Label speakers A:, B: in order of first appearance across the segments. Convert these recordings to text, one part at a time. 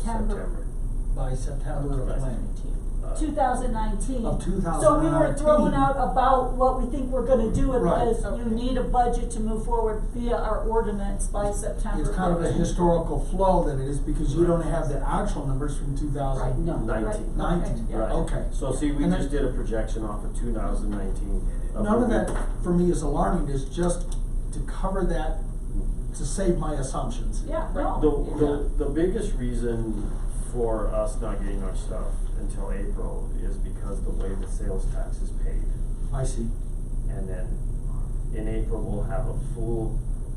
A: September
B: by September of planning.
C: Uh,
A: two thousand nineteen.
B: Of
A: So we were
B: 2019.
A: throwing out about what we think we're gonna do, and
B: Right.
A: because you need a budget to move forward via our ordinance by September.
B: It's kind of a
A: 15th.
B: historical flow that it is because you don't have the actual numbers from two
A: Right,
B: thousand.
A: no, right,
C: Nineteen.
A: okay,
B: Nineteen,
A: yeah.
C: Right.
B: okay.
C: So see, we
B: And that-
C: just did a projection off of two thousand nineteen.
B: None of that for me is alarming, it's just to cover that, to save my assumptions.
A: Yeah,
C: The,
A: no, yeah.
C: the, the biggest reason for us not getting our stuff until April is because the way the sales tax is paid.
B: I see.
C: And then in April, we'll have a full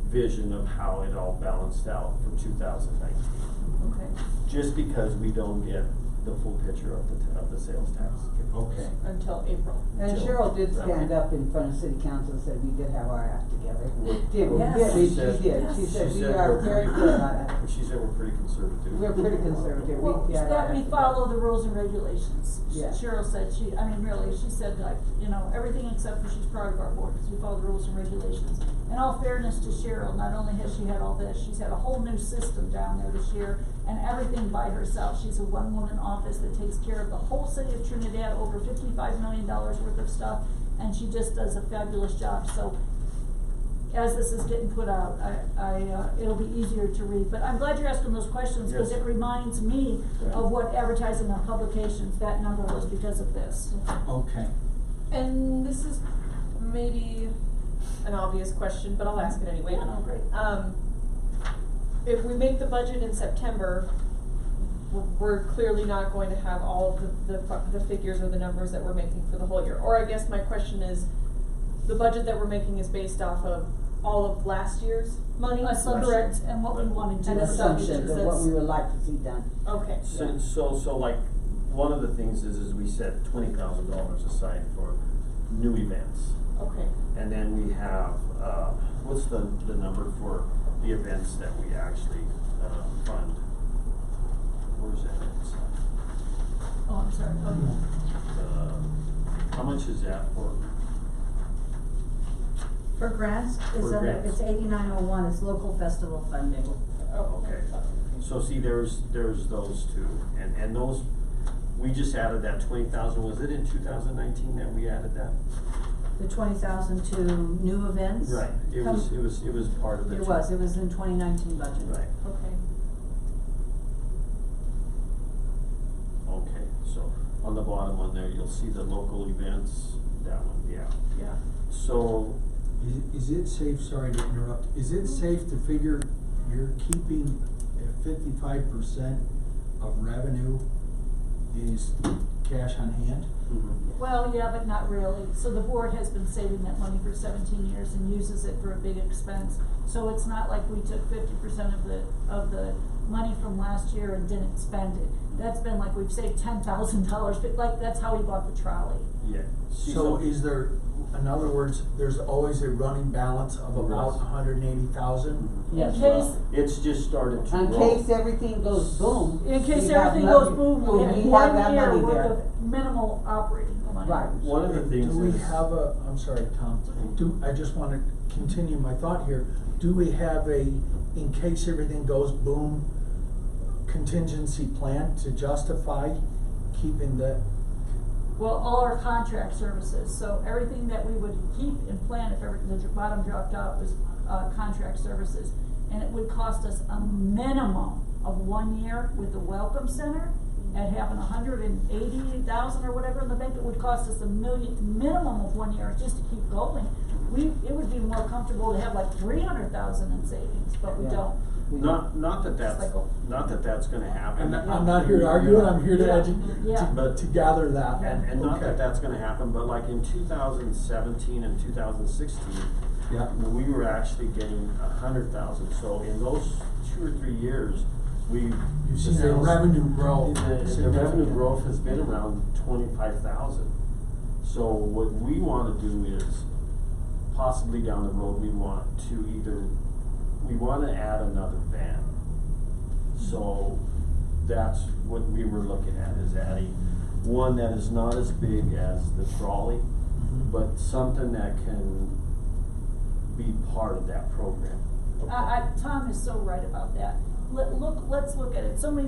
C: vision of how it all balanced out for two thousand nineteen.
A: okay,
C: Just because we don't get the full picture of the, ta- of the sales tax.
B: Okay.
A: until April.
D: And
C: Jill.
D: Cheryl did stand up in front of city council and said, we did have our act together. Did, we
A: Yes.
C: She
D: did, she
C: said-
D: did, she said,
C: She
D: we
C: said
D: are
C: we're
D: very
C: pretty-
D: good on it.
C: She said we're pretty conservative.
D: We're pretty conservative, we
A: Well,
D: got our
A: that
D: act
A: we
D: together.
A: follow the rules and regulations. She-
D: Yeah.
A: Cheryl said she, I mean, really, she said like, you know, everything except for she's proud of our board, because we follow the rules and regulations. In all fairness to Cheryl, not only has she had all this, she's had a whole new system down there this year, and everything by herself. She's a one-woman office that takes care of the whole city of Trinidad, over fifty-five million dollars worth of stuff, and she just does a fabulous job, so as this is getting put out, I, I, uh, it'll be easier to read, but I'm glad you're asking those questions, cause
C: Yes.
A: it reminds me
C: Right.
A: of what advertising on publications, that number was because of this.
B: Okay.
E: And this is maybe an obvious question, but I'll ask it anyway.
A: Yeah, no, great.
E: Um, if we make the budget in September, we're- we're clearly not going to have all of the, the, fu- the figures or the numbers that we're making for the whole year. Or I guess my question is, the budget that we're making is based off of all of last year's money, correct?
A: Assumptions and what we wanna do.
E: An
D: An
A: with
E: assumption
D: assumption
A: subjects.
D: of what we would like to see done.
E: Okay.
C: So, so, so like, one of the things is, is we set twenty thousand dollars aside for new events.
E: Okay,
C: And then we have, uh, what's the, the number for the events that we actually, uh, fund? Where's that? at?
A: Oh, I'm sorry, okay.
C: Uh, how much is that for?
F: For grants, it's
C: For
F: under,
C: grants.
F: it's eighty-nine oh one, it's local festival funding.
E: oh,
C: Okay,
E: okay.
C: so see, there's, there's those two, and, and those, we just added that twenty thousand, was it in two thousand nineteen that we added that?
F: The twenty thousand to new events.
C: Right, it was, it was, it was part of the.
F: It
C: two-
F: was, it was in twenty nineteen budget.
C: Right,
E: Okay.
C: okay, so on the bottom one there, you'll see the local events, that one, yeah.
E: Yeah.
C: So,
B: Is, is it safe, sorry to interrupt, is
A: Mm-hmm.
B: it safe to figure you're keeping fifty-five percent of revenue is cash on hand?
C: mhm,
A: Well, yeah, but not really, so the board has been saving that money for seventeen years and uses it for a big expense. So it's not like we took fifty percent of the, of the money from last year and didn't spend it. That's been like, we've saved ten thousand dollars, but like, that's how we bought the trolley.
C: mm-hmm, yeah. See,
B: So is there, in other words, there's always a running balance of about
C: Yes.
B: hundred and eighty thousand?
C: Mhm.
D: Yes,
A: In
D: well,
A: case,
C: It's just started to roll.
D: In case everything goes boom.
A: in case
D: we have
A: everything
D: nothing-
A: goes boom,
D: we
A: we have
D: have that
A: one year
D: money
A: worth
D: there.
A: of minimal operating money.
D: Right.
C: One of the things
B: Do we
C: is-
B: have a, I'm sorry, Tom, do, I just wanna continue my thought here, do we have a, in case everything goes boom, contingency plan to justify keeping the,
A: Well, all our contract services, so everything that we would keep and plan if ever, the dr- bottom dropped out was, uh, contract services. And it would cost us a minimum of one year with the Welcome Center, at having a hundred and eighty thousand or whatever in the bank, it would cost us a million, minimum of one year just to keep going. We, it would be more comfortable to have like three hundred thousand in savings, but we
D: Yeah.
A: don't.
D: We-
C: Not, not that that's,
A: Cycle.
C: not that that's gonna
B: I'm
C: happen.
B: not, I'm not here to argue, I'm here to
A: Yeah.
B: edu-
A: Yeah.
B: to, to gather that.
C: And, and not
B: Okay.
C: that that's gonna happen, but like in two thousand seventeen and two thousand sixteen,
B: Yeah,
C: we were actually getting a hundred thousand, so in those two or three years, we.
B: you've
C: the
B: seen the
C: sales-
B: revenue grow
C: The, the revenue
B: significantly.
C: growth has been around twenty-five thousand. So what we wanna do is possibly down the road, we want to either, we wanna add another van. So that's what we were looking at, is adding one that is not as big as the trolley,
B: Mhm.
C: Mm-hmm. but something that can be part of that program.
A: I, I, Tom is so right about that. Let, look, let's look at it, so many